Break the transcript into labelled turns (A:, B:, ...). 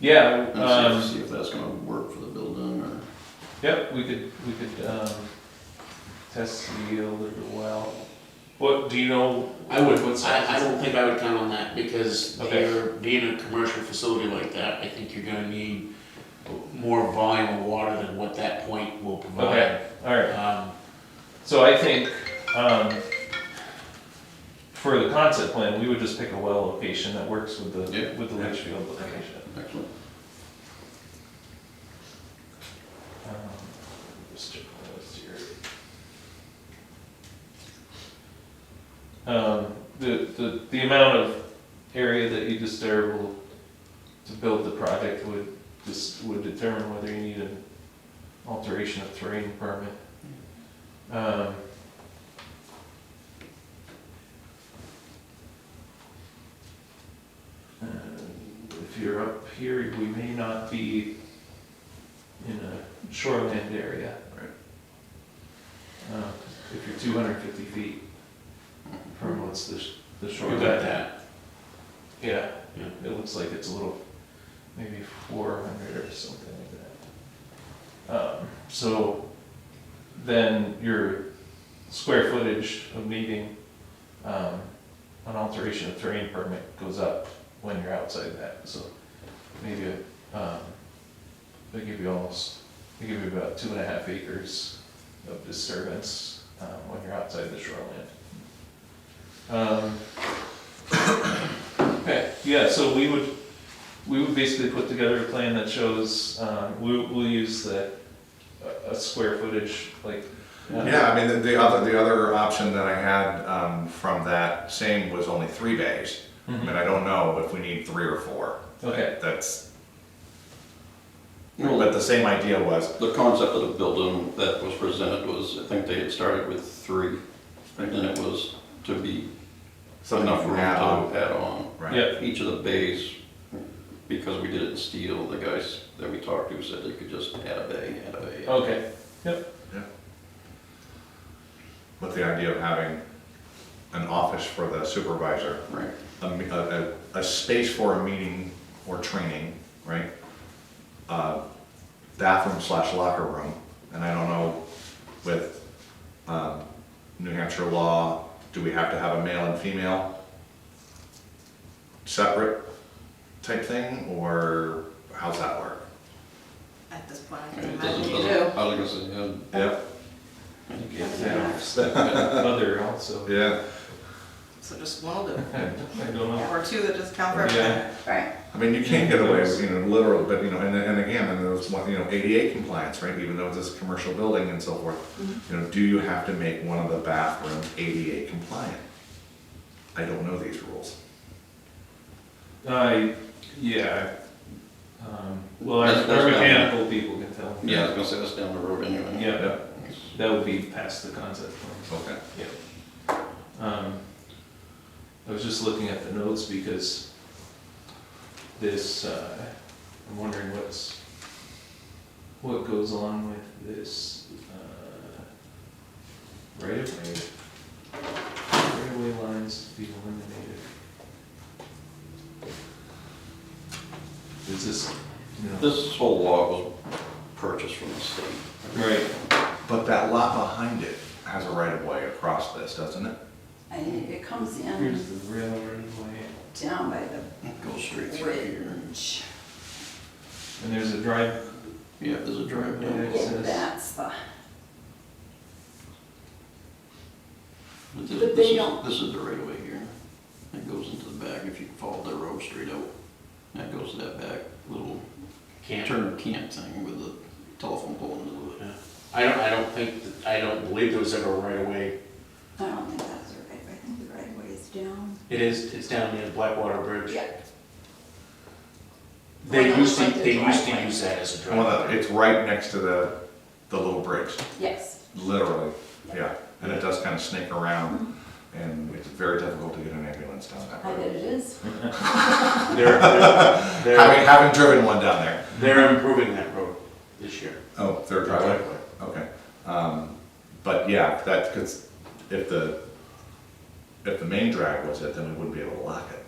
A: Yeah,
B: And
A: um,
B: see if- see if that's gonna work for the building or.
A: yep, we could, we could, um, test the yield of the well. What, do you know?
C: I would,
A: what's-
C: I, I don't think I would count on that, because
A: Okay.
C: you're, being a commercial facility like that, I think you're gonna need more volume of water than what that point will provide.
A: Okay, all right.
C: Um,
A: So I think, um, for the concept plan, we would just pick a well location that works with the,
B: Yeah.
A: with the leach field location.
B: Excellent.
A: Um, just check my list here. Um, the, the, the amount of area that you disturb will, to build the project would, just would determine whether you need an alteration of terrain permit. Um, and uh, If you're up here, we may not be in a shoreland area.
B: Right.
A: Uh, If you're two hundred and fifty feet from what's the, sh- the
C: we
A: shoreline.
C: got that,
A: Yeah,
C: Yeah.
A: it looks like it's a little, maybe four hundred or something like that. Um, so then your square footage of needing, um, an alteration of terrain permit goes up when you're outside that, so maybe, um, they give you almost, they give you about two and a half acres of disturbance, um, when you're outside the shoreline. Um, Okay, yeah, so we would, we would basically put together a plan that shows, um, we, we'll use the, a, a square footage, like. uh,
D: Yeah, I mean, the, the other, the other option that I had, um, from that same was only three bays. I
B: Mm-hmm.
D: mean,
A: mhm,
D: I don't know if we need three or four.
A: Okay,
D: That's,
B: Well,
D: but the same idea was,
B: The concept of the building that was presented was, I think they had started with three, and then it was to be
D: something
B: enough
D: from
B: room to
D: add on,
B: add on.
D: right?
A: yeah,
B: Each of the bays, because we did it in steel, the guys that we talked to said they could just add a bay, add a bay.
A: okay,
D: With the idea of having an office for the supervisor,
B: Right,
D: a, me- a, a, a space for a meeting or training, right? Uh, bathroom slash locker room, and I don't know with, um, New Hampshire law, do we have to have a male and female separate type thing, or how's that work?
E: At this point, I
B: Right,
E: can
B: it doesn't-
E: imagine you do.
B: doesn't- I was gonna say, yeah,
D: Yep.
B: I think you have to
A: yeah, other also,
D: Yeah,
E: So just one will do.
A: I don't know,
E: Or two that just count for
A: Yeah.
E: everything. Right.
D: I mean, you can't get away with, you know, literal, but, you know, and, and again, and there's one, you know, ADA compliance, right, even though it's this commercial building and so forth. You know, do you have to make one of the bathrooms ADA compliant? I don't know these rules.
A: I, yeah, um, well, our,
B: That's- that's
A: our
B: not-
A: mechanical people can tell.
B: yeah, I was gonna say that's down the road anyway.
A: Yeah,
D: Yep.
A: that would be past the concept plan.
D: Okay.
A: Yeah. Um, I was just looking at the notes because this, uh, I'm wondering what's, what goes along with this, uh, right of way. Right of way lines to be eliminated. Is this, no,
B: This whole lot was purchased from the state.
A: right,
D: But that lot behind it has a right of way across this, doesn't it?
F: And it comes in
A: here's the railroad way,
F: down by
B: Goes straight
F: the
B: through here.
F: bridge.
A: and there's a drive,
B: Yeah, there's a drive down.
A: It says-
F: That's the,
B: But this, this
F: But they
B: is,
F: don't-
B: this is the right of way here. That goes into the back if you follow the road straight out. That goes to that back little
C: can't,
B: turn camp thing with the telephone pole into it.
C: yeah. I don't, I don't think, that- I don't believe there was ever a right of way.
F: I don't think that's the right, way. I think the right way is down.
C: It is, it's down near the Blackwater Bridge.
F: Yeah.
C: They
F: Well,
C: used to,
F: like the
C: they used to
F: driveway.
C: use that as a
D: Well, no,
C: driveway.
D: it's right next to the, the little bridge,
F: Yes,
D: literally, yeah, and it does kind of snake around, and it's very difficult to get an ambulance down that
F: I bet
D: road.
F: it is.
C: They're, they're-
D: Having,
C: they're,
D: having driven one down there.
C: they're improving that road this year.
D: Oh, third driveway, okay. Um, But yeah, that, because if the, if the main drag was it, then we wouldn't be able to lock it.